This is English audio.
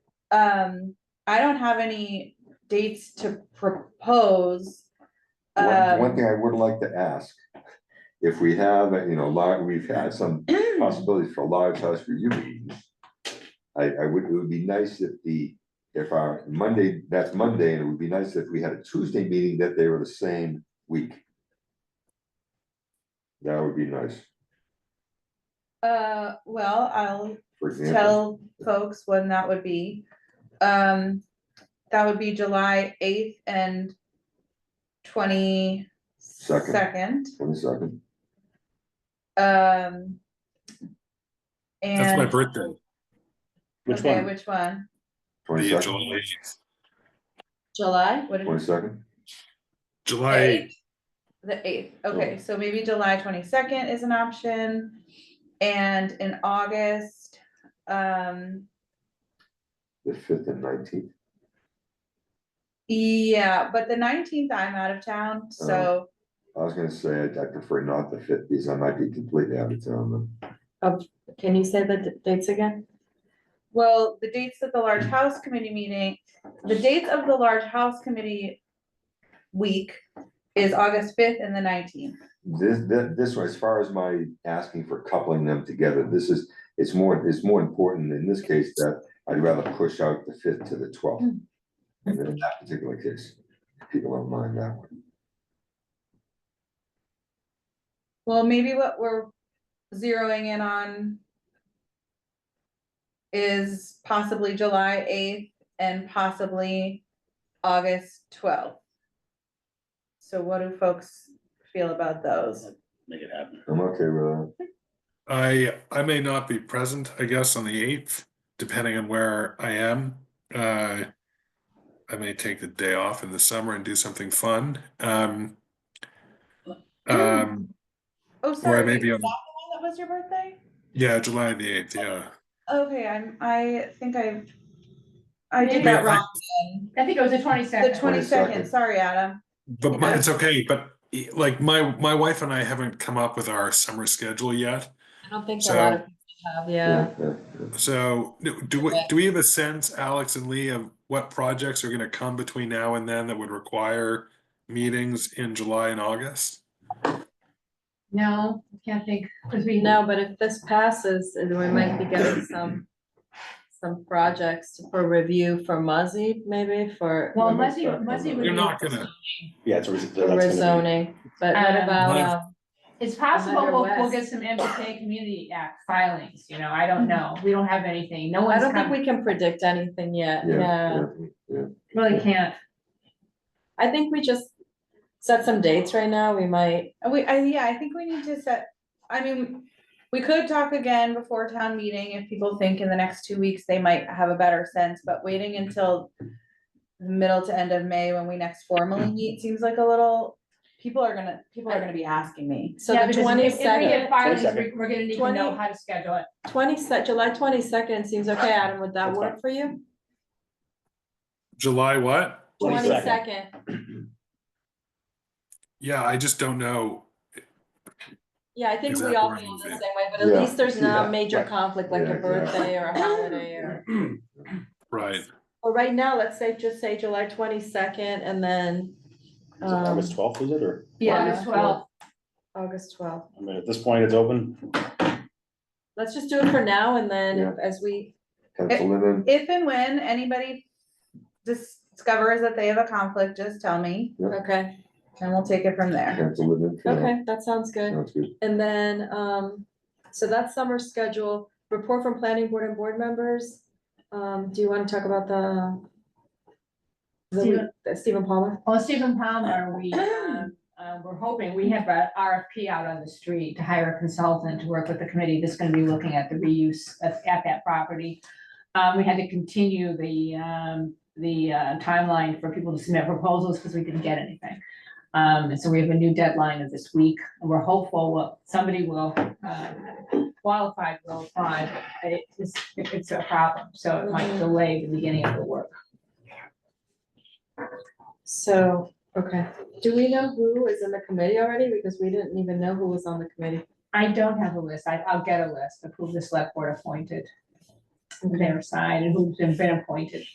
um, I don't have any dates to propose. One, one Um, thing I would like to ask, if we have, you know, large, we've had some possibilities for large house review meetings. I, I would, it would be nice if the, if our Monday, that's Monday, and it would be nice if we had a Tuesday meeting that they were the same week. That would be nice, Uh, well, I'll for tell example, folks when that would be. Um, that would be July eighth and twenty-second. twenty-second, Um. That's my And, birthday. Which okay, one? which one? The twenty-second, July, July? What did- twenty-second, July Eighth. The eighth, okay, so maybe July twenty-second is an option, and in August, um, the fifth and nineteenth. yeah, but the nineteenth I'm out of town, so, I was gonna say, I I prefer not the fifth, because I might be completely out of town, then. Can you say the d- dates again? well, the dates of the large house committee meeting, the dates of the large house committee week is August fifth and the nineteenth. This, this, this, one, as far as my asking for coupling them together, this is, it's more, it's more important in this case that I'd rather push out the fifth to the twelfth. Mm-hmm. And then in that particular case, if people don't mind that one. Well, maybe what we're zeroing in on is possibly July eighth and possibly August twelfth. So what do folks feel about those? Make it happen. I'm okay with that. I I may not be present, I guess, on the eighth, depending on where I am. Uh, I may take the day off in the summer and do something fun. Um, um, Oh, or I sorry, is may that the be one on. that was your birthday? Yeah, July the eighth. Yeah, Okay, I'm, I think I, I did Maybe that I- wrong. then. I think it was the twenty The second. twenty-second, sorry, Adam. but my- it's okay. But e- like my my wife and I haven't come up with our summer schedule yet. I don't think a lot So- of people have, yeah. Yeah, yeah, So do do we do we have a sense, Alex and Lee, of what projects are going to come between now and then that would require meetings in July and August? No, I can't think, because we No, but if this passes, then we might be getting some, some projects for review for Muzzy, maybe for Well, Muzzy, Muzzy would You're be, not gonna, Yeah, it's. a res- that's for gonna be- rezoning, but what Um, about, Mine- um, it's possible Another we'll, we'll West. get some MBTA Community Act filings, you know, I don't know, we don't have anything, no I one's don't think come, we can predict anything yet, yeah. yeah, yeah. really can't. I think we just set some dates right now, we might, Uh, We, I, yeah, I think we need to set, I mean, we could talk again before town meeting if people think in the next two weeks they might have a better sense, but waiting until the middle to end of May when we next formally meet seems like a little, people are gonna, people are gonna be asking me. so Yeah, the because if- If we twenty-second, get filings, 22nd. we- we're gonna need to know 20 how to schedule it. twenty-second, July twenty-second seems okay, Adam, would that That's work for you? July what? 22nd. Twenty-second, Yeah, I just don't know. yeah, I think we Exactly all where I'm feel the same moving. way, but at Yeah, least there's not yeah, a major right. conflict like Yeah, a exactly. birthday or a holiday or. Right. Well, right now, let's say, just say July twenty-second and then, Is it um, August twelfth, is it, or, Um, August twelfth, August twelfth. I mean, at this point, it's open, Let's just do it for now and then Yeah. as we, Pencil it in, If and when anybody discovers that they have a conflict, just tell me okay, and we'll take it from there. pencil it in. for now. okay, that sounds good. Sounds good. And then, um, so that's summer schedule, report from planning board and board members. Um, do you wanna talk about the the, week- Stephen- the Stephen Palmer? well, Stephen Palmer, we, um, uh, we're hoping, we have a RFP out on the street to hire a consultant to work with the committee that's gonna be looking at the reuse of, at that property. Um, we had to continue the, um, the uh, timeline for people to submit proposals because we didn't get anything. Um, and so we have a new deadline of this week, and we're hopeful what, somebody will, uh, qualified will apply. but It is, it's a problem, so it might delay the beginning of the work. So, okay, do we know who is in the committee already? Because we didn't even know who was on the committee. I don't have a list, I, I'll get a list of who the select board appointed. from their side and who's been appointed.